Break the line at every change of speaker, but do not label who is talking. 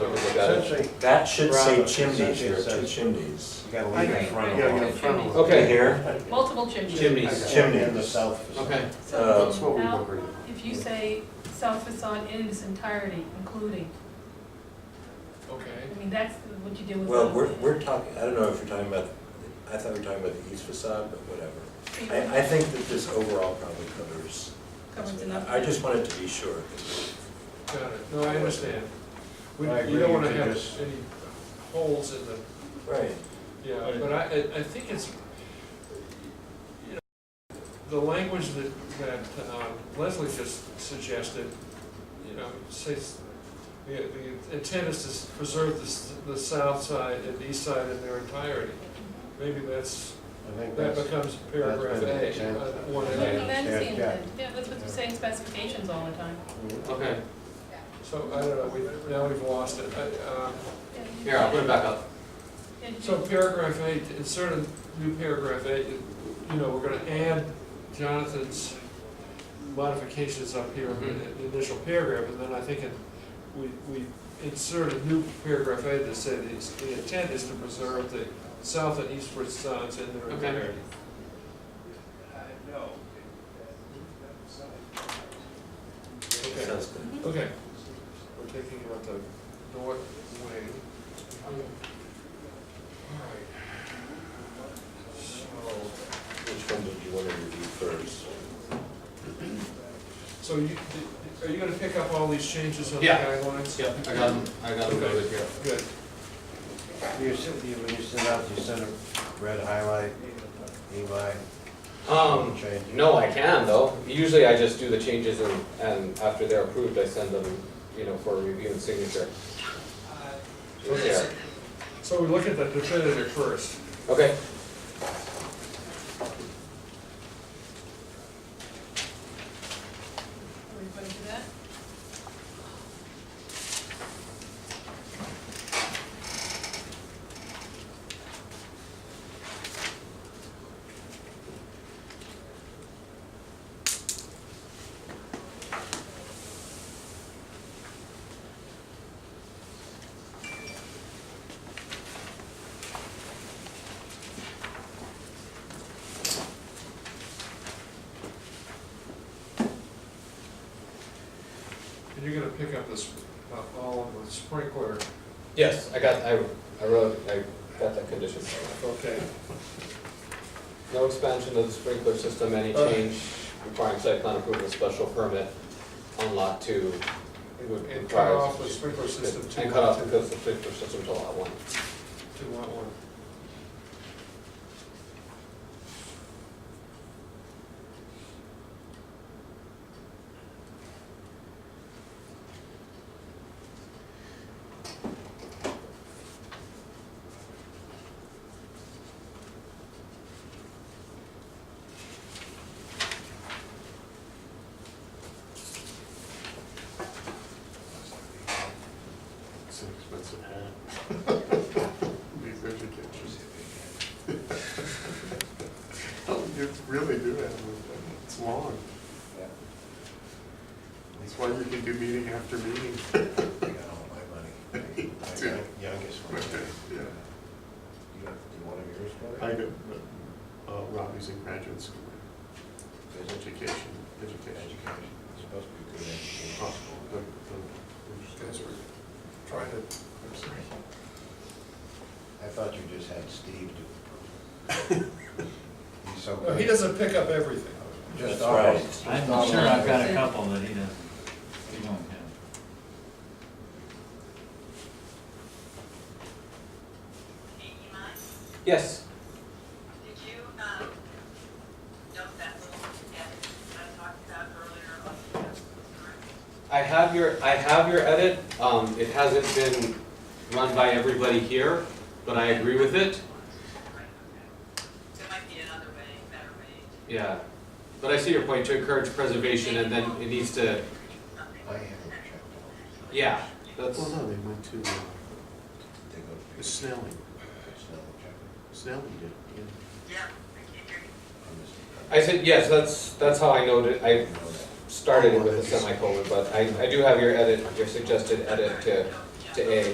got
Essentially,
it. That should say
Right.
chimneys here, two
Essentially,
chimneys.
you gotta leave
I
in
agree.
front
Yeah,
of
yeah,
all.
in front of
Okay,
Okay.
here,
Multiple chimneys.
Chimneys.
Chimneys.
And the south facade.
Okay,
So
that's
um,
what we
Al,
were reading.
if you say south facade in its entirety, including,
Okay.
I mean, that's what you do with.
well,
those.
we're, we're talking, I don't know if you're talking about, I thought we were talking about the east facade, but whatever.
So you
I, I think that this overall probably covers.
Covers enough.
I just wanted to be sure.
Got it, no, I understand. We,
I
you don't
agree,
wanna
you
have
just-
any holes in the,
Right.
yeah, but I, I- I think it's, you know, the language that, that um, Leslie just suggested, you know, says, the, the intent is to s- preserve the, s- the south side and east side in their entirety. Maybe that's,
I think
that
that's,
becomes paragraph
been the
A,
intent.
uh, one
Well,
A.
That's the
Yeah, yeah.
intent, yeah, that's what you say in specifications all the time.
Okay,
So, I don't know, we, now we've lost it. I- um,
you-
here, I'll put it back up.
yeah, you-
So paragraph eight, insert a new paragraph eight, you know, we're gonna add Jonathan's modifications up here in the- the initial paragraph, and then I think it- we, we insert a new paragraph eight that said it's- the intent is to preserve the south and east sides in their
Okay.
entirety. Okay,
Sounds good.
okay, we're taking out the north wing. Alright. So.
Which one did you want to review first?
So you, are you gonna pick up all these changes on the
Yeah.
guidelines?
Yep, I got them, I got them noted here.
Good.
you sent, you, when you sent out, you sent a red highlight, E Eli,
Um,
change.
no, I can though. Usually I just do the changes and, and after they're approved, I send them, you know, for review and signature. Yeah,
So we look at the definitive first.
okay.
Everybody do that?
And you're gonna pick up this, uh, all of the sprinkler,
Yes, I got, I, I wrote, I got that condition.
okay.
No expansion of the sprinkler system, any change requiring site plan approval, special permit on lot two. would
And cut
require-
off the sprinkler system to.
And cut off the coastal sprinkler system to lot one.
To lot one.
It's an expensive hat. Be vegetarian. Oh, You really do have one. It's long.
Yeah.
That's why you can do meeting after meeting.
I got all my money. My
Two.
Youngest one.
Yeah.
You got, you want of yours,
I
Mark?
got, uh, Robbie's in graduate school,
Is it
education,
education?
education.
It's supposed to be good education.
Oh, the- the-
Guys were trying to, I'm sorry.
I thought you just had Steve do it. He's so
No, Oh, he
good.
doesn't pick up everything.
Just
That's
always.
right.
just
I'm
always.
sure I've got a couple that he doesn't, he don't have.
Hey, Iman,
Yes,
did you, um, note that little edit I talked about earlier on the, uh,
I have your, I have your edit, um, it hasn't been run by everybody here, but I agree with it,
right, okay. So it might be another way, better way to,
yeah. But I see your point, to encourage preservation, and then it needs to,
something.
I haven't checked.
yeah, that's,
Well, no, they went to uh,
They go to Peter.
Snelling.
It's not checked.
Snelling did, it, yeah.
Yeah, I can't hear you.
I'm just-
I said, yes, that's, that's how I noted, I
You know that.
started it with a semicolon, but I, I do have your edit, your suggested edit to, to A.